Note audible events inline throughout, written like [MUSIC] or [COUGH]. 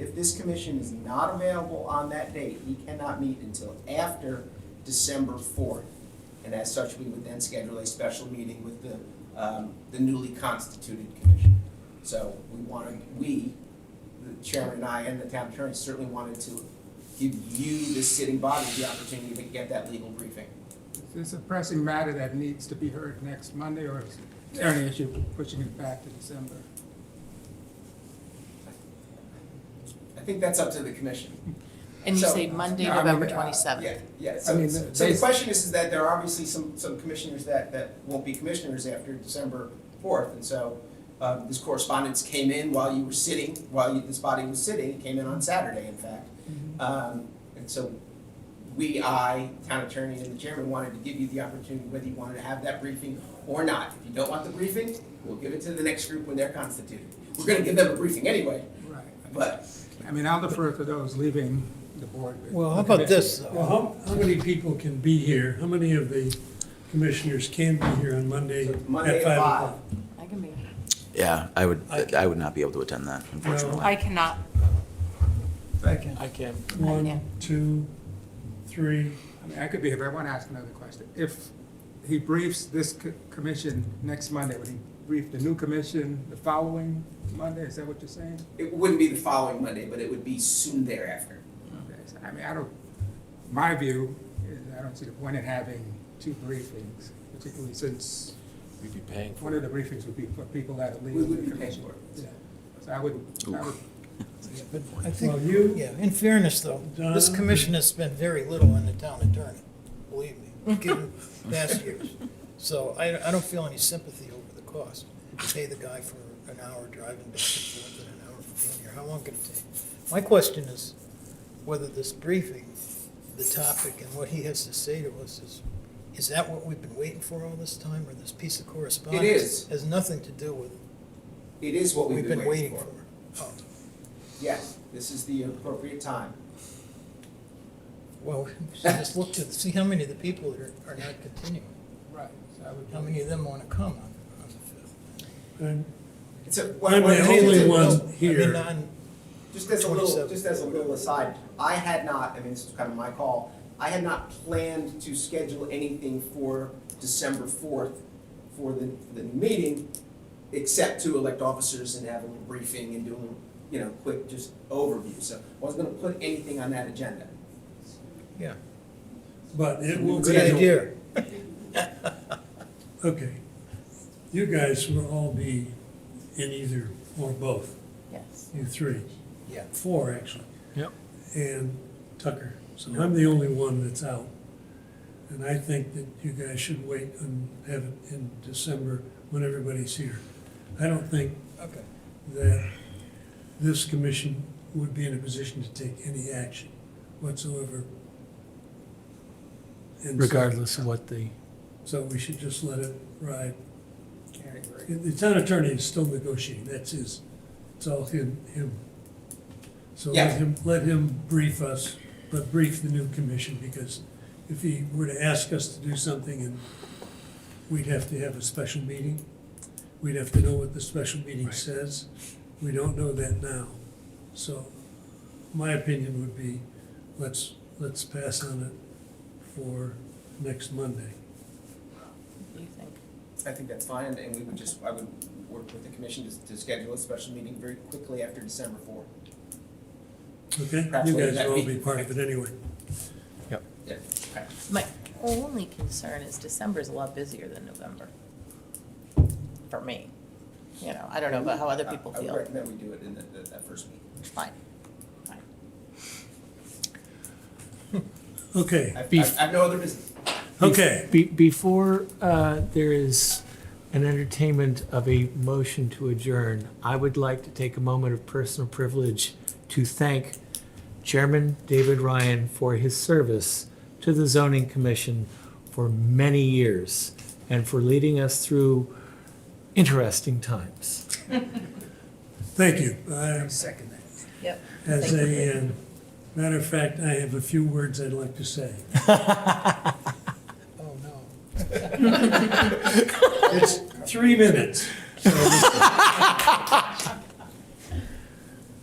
If this commission is not available on that date, we cannot meet until after December fourth. And as such, we would then schedule a special meeting with the, um, the newly constituted commission. So we wanted, we, the chairman and I and the town attorney certainly wanted to give you, the sitting body, the opportunity to get that legal briefing. Is this a pressing matter that needs to be heard next Monday, or is there any issue pushing it back to December? I think that's up to the commission. And you So- say Monday, No, I mean, November uh, twenty-seventh? Yeah, yeah, I so, mean, so the- so the basi- question is, is that there are obviously some, some commissioners that, that won't be commissioners after December fourth, and so, um, this correspondence came in while you were sitting, while you, this body was sitting, it came in on Saturday, in fact. Mm-hmm. Um, and so, we, I, town attorney and the chairman wanted to give you the opportunity, whether you wanted to have that briefing or not. If you don't want the briefing, we'll give it to the next group when they're constituted. We're gonna give them a briefing anyway, Right. but I mean, I'll defer to those leaving the board. with- Well, how about this, though? Well, how, how many people can be here? How many of the commissioners can be here on Monday So at Monday five at o'clock? I can be. Yeah, I would, I- I would not be able to attend that, unfortunately. I cannot. Thank you. I can. One, two, three. I mean, I could be, here, but I want to ask another question. If he briefs this co- commission next Monday, would he brief the new commission the following Monday? Is that what you're saying? it wouldn't be the following Monday, but it would be soon thereafter. Okay, so, I mean, I don't, my view is I don't see the point in having two briefings, particularly since We'd be paying for one of the briefings would be for people that are We leaving would the be paying commission. for it. Yeah. So I would, I would But I Well, think, you, yeah, in fairness, though, this Done. commission has spent very little on the town attorney, believe me, given past years. So I, I don't feel any sympathy over the cost. You Pay the guy for an hour driving back and forth and an hour for being here, how long could it take? My question is whether this briefing, the topic and what he has to say to us is, is that what we've been waiting for all this time, or this piece of correspondence? is. Has nothing to do with It is what what we've been waiting for. Oh. Yes, this is the appropriate time. Well, [LAUGHS] we should just look to see how many of the people that are, are not continuing, Right, so I would. how many of them want to come on, on the I'm- It's a, I'm what- the what- only fifth. one. No, I mean, here. on- Just as a little, 27. just as a little aside, I had not, I mean, this is kind of my call, I had not planned to schedule anything for December fourth for the, for the meeting, except to elect officers and have a little briefing and do a little, you know, quick just overview, so I wasn't gonna put anything on that agenda. Yeah, but it will good be, idea. okay. You guys will all be in either or both, Yes. you three, Yeah. four actually. Yep. And Tucker. So I'm the only one that's out. And I think that you guys should wait and have it in December when everybody's here. I don't think Okay. that this commission would be in a position to take any action whatsoever. And so- Regardless of what the, So we should just let it ride. I agree. The town attorney is still negotiating, that's his, it's all him, him. So let Yeah. him, let him brief us, but brief the new commission, because if he were to ask us to do something and we'd have to have a special meeting, we'd have to know what the special meeting says. We don't know that now. So my opinion would be, let's, let's pass on it for next Monday. What do you think? I think that's fine, and we would just, I would work with the commission to, to schedule a special meeting very quickly after December fourth. Okay, Perhaps you later guys that will all week. be part of it anyway. Yeah. My only concern is December is a lot busier than November. For me. You know, I don't know about how Uh, other people I- I feel. would recommend we do it in the, the- that first meeting. Fine. Fine. Okay, I've, I've Beef. I've no other business. okay. be, before, uh, there is an entertainment of a motion to adjourn, I would like to take a moment of personal privilege to thank Chairman David Ryan for his service to the zoning commission for many years and for leading us through interesting times. Thank you. I- Second that. Yep. As Thank you. a, uh, matter of fact, I have a few words I'd like to say. Oh, no. It's three minutes. so- [LAUGHS]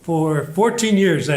for 14 years